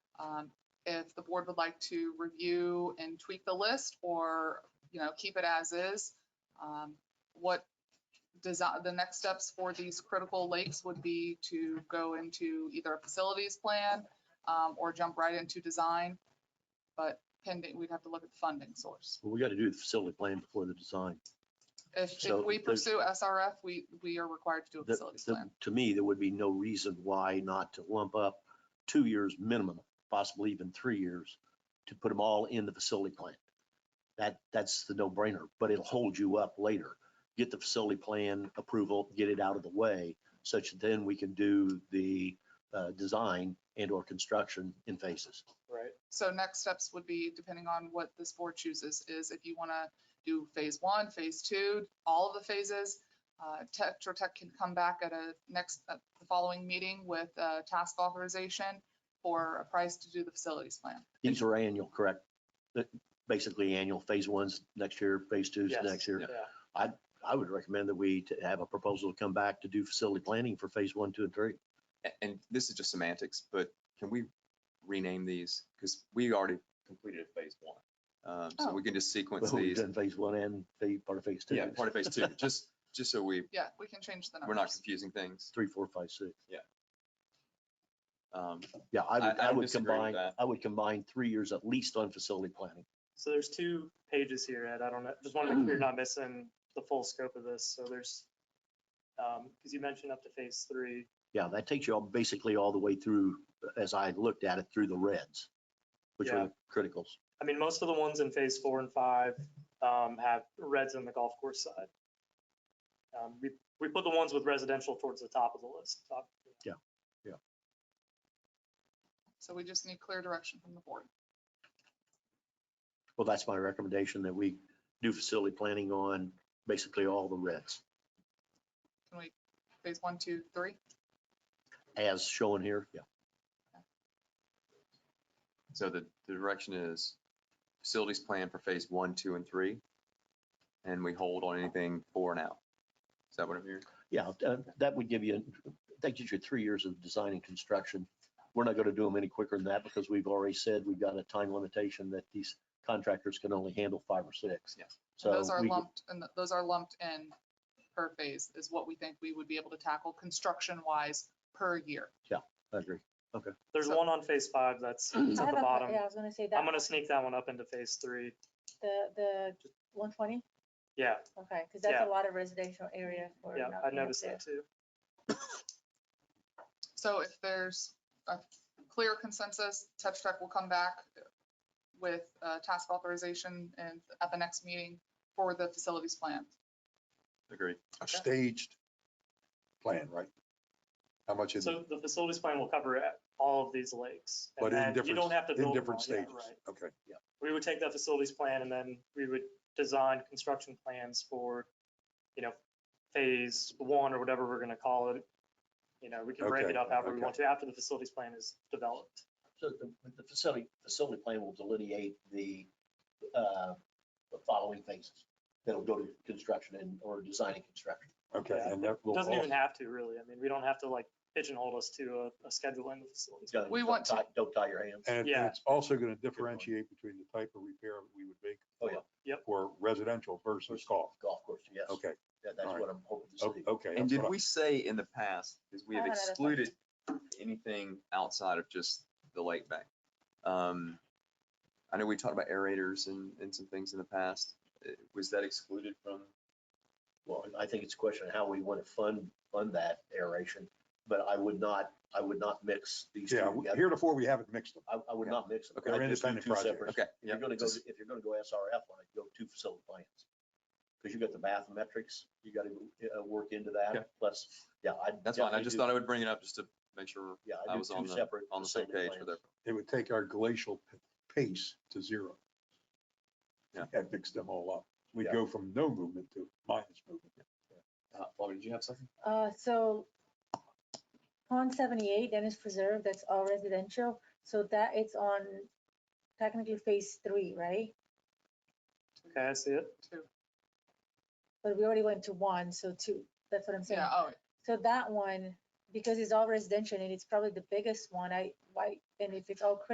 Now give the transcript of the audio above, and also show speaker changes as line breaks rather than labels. um, if the board would like to review and tweak the list or, you know, keep it as is. Um, What design, the next steps for these critical lakes would be to go into either a facilities plan um, or jump right into design. But pending, we'd have to look at the funding source.
Well, we got to do the facility plan before the design.
If,
So
if we
the-
pursue SRF, we, we are required to do a
The-
facilities
the-
plan.
To me, there would be no reason why not to lump up two years minimum, possibly even three years, to put them all in the facility plan. That, that's the no-brainer, but it'll hold you up later. Get the facility plan approval, get it out of the way, such that then we can do the uh, design and/or construction in phases.
Right.
So next steps would be, depending on what this board chooses, is if you want to do phase one, phase two, all of the phases. uh, Tetra Tech can come back at a next, at the following meeting with a task authorization for a price to do the facilities plan.
These are annual, correct? That- Basically annual, phase one's next year, phase two's
Yes.
next year.
Yeah.
I would recommend that we t- have a proposal to come back to do facility planning for phase one, two, and three.
A- And this is just semantics, but can we rename these? Because we already completed phase one. Um, So
Oh.
we can just sequence
Well, we've
these.
done phase one and phase, part of phase two.
Yeah, part of phase two, just, just so we,
Yeah, we can change the
we're not
numbers.
confusing things.
Three, four, five, six.
Um,
Yeah, I
I-
would,
I
I
don't
would
disagree with
combine,
that.
I would combine three years at least on facility planning.
So there's two pages here, Ed. I don't know, just want to make sure you're not missing the full scope of this. So there's, um, because you mentioned up to phase three.
Yeah, that takes you all, basically all the way through, as I looked at it, through the reds, which are
Yeah.
the criticals.
I mean, most of the ones in phase four and five, um, have reds on the golf course side. Um, we, we put the ones with residential towards the top of the list, Uh, top,
So we just need clear direction from the board.
Well, that's my recommendation, that we do facility planning on basically all the reds,
Can we, phase one, two, three?
as shown here. Yeah.
So the the direction is facilities plan for phase one, two, and three. And we hold on anything for now. Is that what I'm hearing?
Yeah, uh, that would give you, that gives you three years of design and construction. We're not going to do them any quicker than that because we've already said we've got a time limitation that these contractors can only handle five or six.
Yeah.
And
So
Those are
we-
lumped, and th- those are lumped in per phase is what we think we would be able to tackle construction wise per year.
I agree.
there's
So-
one on phase five that's it's
I
at
have
the
a que-
bottom.
Yeah, I was gonna say
I'm
that,
gonna sneak that one up into phase three.
the, the one twenty,
Yeah,
okay, because that's
Yeah.
a lot of residential area for.
yeah,
not
I
being up
noticed
there.
that too.
So if there's a clear consensus, Tetra Tech will come back with uh, task authorization and at the next meeting for the facilities plan.
Agreed.
a staged plan, right? How much is it?
So the facilities plan will cover a- all of these lakes. and
But in
then You
different-
don't have to
in
build. them
different
all. Yeah,
stages?
right.
Okay,
We would take that facilities plan and then we would design construction plans for, you know, phase one or whatever we're gonna call it. You know, we can break
Okay,
it up however we
okay.
want to after the facilities plan is developed.
So the, the facility, facility plan will delineate the, uh, the following phases that'll go to construction and, or design and construction.
okay.
Yeah.
And that will,
Doesn't even
also-
have to really. I mean, we don't have to like pigeonhole us to a, a schedule in the facilities. plan.
We want to-
Don't tie- Don't tie your hands.
and
Yeah.
it's also going to differentiate between the type of repair we would make.
Oh, yeah.
for-
Yep.
For residential versus golf.
Golf course, yes.
Okay,
Yeah, That's
all right.
what I'm hoping to
o-
see.
okay.
And
that's
did
what I-
we say in the past, because we
I
have
had a
excluded anything outside of just the lake bank? Um, I know we talked about aerators and, and some things in the past. Uh, Was that excluded from?
Well, I think it's a question of how we want to fund, fund that aeration, but I would not, I would not mix these two
Yeah, we-
together.
heretofore, we haven't mixed them.
I, I would not mix them.
Okay, they're
I'd just do
independent
two
projects.
separate-
Okay,
If you're
yeah,
gonna go,
just-
if you're gonna go SRF on it, go two facility plans. Because you got the bathymetrics, you gotta uh, work into
Yeah.
that, plus, yeah, I.
that's fine. I just thought I would bring it up just to make sure
Yeah,
I
I do
was on
two
the-
separate.
on the same
facility
page for
plans.
It would take our glacial p- pace to zero.
Yeah.
That mixed them all up. We'd
Yeah.
go from no movement to minus movement.
Uh, Bobby, did you have something?
Uh, so pond seventy-eight, Dennis Preserve, that's all residential, so that it's on technically phase three, right?
Okay, I see it.
Two.
But we already went to one, so two, that's what I'm saying.
Yeah, oh,
So that one, because it's all residential and it's probably the biggest one, I, why, and if it's all critical